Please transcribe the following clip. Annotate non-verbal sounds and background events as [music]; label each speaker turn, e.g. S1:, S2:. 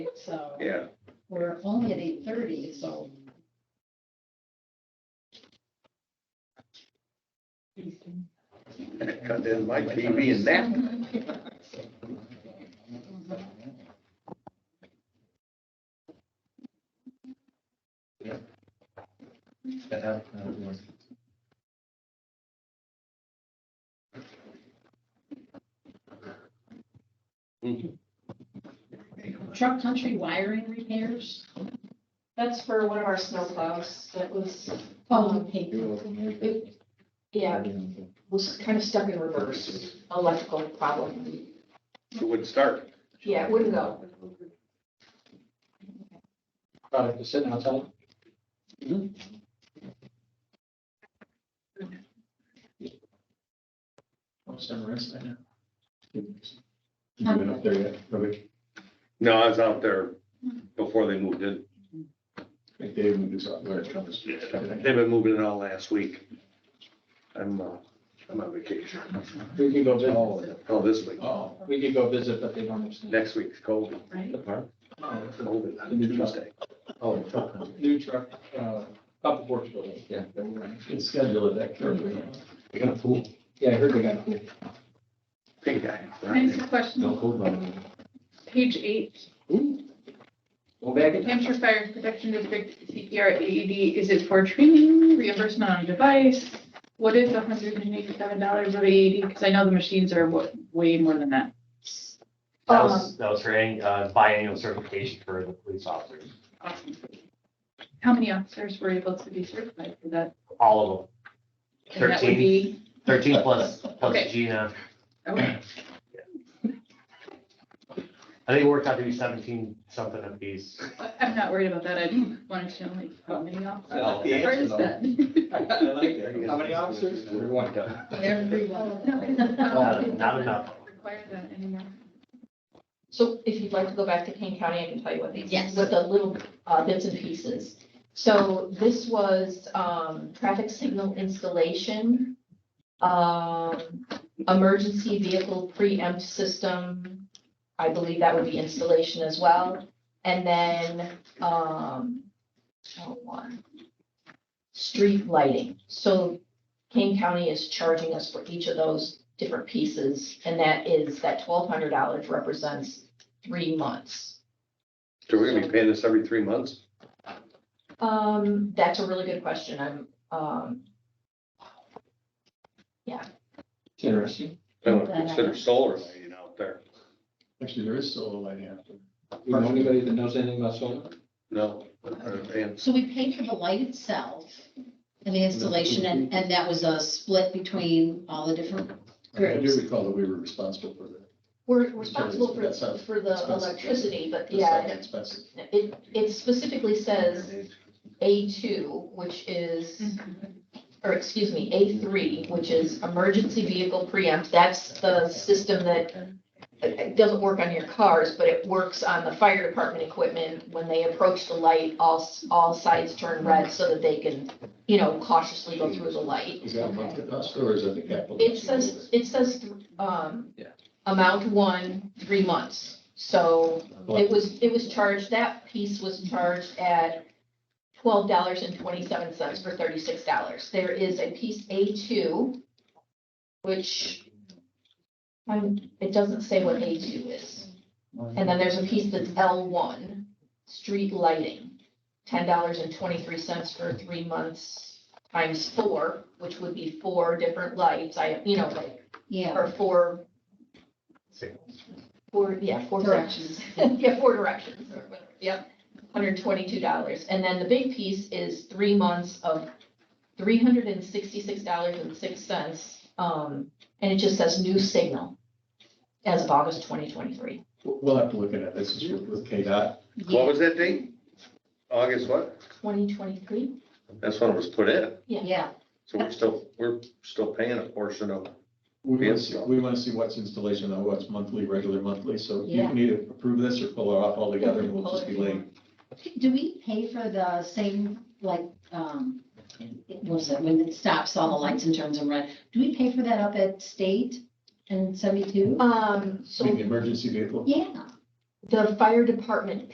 S1: so
S2: Yeah,
S1: we're only at eight thirty, so.
S2: and it cut in my TV and that.
S1: Truck country wiring repairs,
S3: That's for one of our snowplows that was,
S1: oh, okay,
S3: yeah, was kind of stuck in reverse, electrical problem.
S2: It would start.
S3: Yeah, it wouldn't go.
S4: product is sitting outside. Almost done rest right now.
S5: You been up there yet, Robbie?
S2: No, I was out there before they moved in.
S5: Like Dave moved his out where it comes.
S2: They've been moving in all last week. I'm, uh, I'm on vacation.
S4: We could go visit,
S2: Oh, oh, this week.
S5: Oh.
S4: we could go visit, but they don't understand.
S2: Next week's COVID,
S1: right?
S4: Oh,
S2: COVID on Tuesday.
S5: Oh.
S4: New truck, uh, couple works building.
S5: Yeah. It's scheduled at that curve. We got a pool.
S4: Yeah, I heard they got.
S2: Pink eye.
S6: Can I ask a
S5: No
S6: question?
S5: pool, but.
S6: Page eight,
S4: Go back
S6: New
S4: in.
S6: Hampshire Fire Protection District CPR AED, is it for training, reimbursement on device? What is hundred and eighty-seven dollars of AED? Because I know the machines are wa- way more than that.
S7: That was, that was her an- uh, biannual certification for the police officers,
S6: Awesome. How many officers were able to be certified for that?
S7: all of them.
S6: And that would
S7: Thirteen,
S6: be
S7: thirteen plus,
S6: Okay.
S7: plus Gina.
S6: Okay.
S7: I think it worked out to be seventeen something of these.
S6: I- I'm not worried about that. I just wanted to know like how many officers.
S4: like the
S6: Where
S4: answer,
S6: is
S4: though.
S6: that?
S4: I [laughs] like that. How many officers? Everyone.
S1: Everyone.
S7: Not not enough.
S6: Require that anymore.
S3: So if you'd like to go back to Kane County, I can tell you what these,
S1: Yes.
S3: what the little uh, bits and pieces. So this was um, traffic signal installation, um, emergency vehicle preempt system. I believe that would be installation as well. And then um, oh, one, street lighting. So Kane County is charging us for each of those different pieces, and that is, that twelve hundred dollars represents three months.
S2: So we're gonna be paying this every three months?
S3: Um, that's a really good question, I'm, um,
S4: Interesting.
S2: I would consider solar lighting out there.
S5: Actually, there is solar lighting after.
S4: Do you know anybody that knows anything about solar?
S2: No. And
S1: So we paid for the light itself and the installation, and, and that was a split between all the different
S5: I
S1: groups.
S5: do recall that we were responsible for that.
S3: we're responsible for,
S5: That's not-
S3: for the
S5: that's not-
S3: electricity, but
S5: It's not
S3: yeah,
S5: Expensive.
S3: it, it specifically says A two, which is or excuse me, A three, which is emergency vehicle preempt, that's the system that uh, it doesn't work on your cars, but it works on the fire department equipment. When they approach the light, all, s- all sides turn red so that they can, you know, cautiously go through the light.
S5: Is that a month cost or is that the capital?
S3: It says, it says, um,
S4: Yeah.
S3: amount one, three months. So it was, it was charged, that piece was charged at twelve dollars and twenty-seven cents for thirty-six dollars. There is a piece A two, which um, it doesn't say what A two is. And then there's a piece that's L one, street lighting, ten dollars and twenty-three cents for three months times four, which would be four different lights, I, you know, like,
S1: Yeah.
S3: or four, four, yeah, four directions. [laughs] Yeah, four directions or whatever, yep, hundred twenty-two dollars. And then the big piece is three months of three hundred and sixty-six dollars and six cents. Um, and it just says new signal as of August twenty twenty-three.
S5: We'll we'll have to look at it. This is with- with KDOT.
S2: what was that date? August what?
S3: Twenty twenty-three?
S2: That's when it was put in.
S1: Yeah,
S2: So we're still, we're still paying a portion of
S5: We want to
S2: Yes.
S5: see, we want to see what's installation, though, what's monthly, regular monthly, so you
S1: Yeah.
S5: can either approve this or pull it off altogether, and we'll just be late.
S1: do we pay for the same, like, um, what was it, when it stops all the lights and turns them red? Do we pay for that up at State and seventy-two?
S3: Um,
S5: Maybe
S3: so
S5: emergency vehicle.
S1: Yeah.
S3: the fire department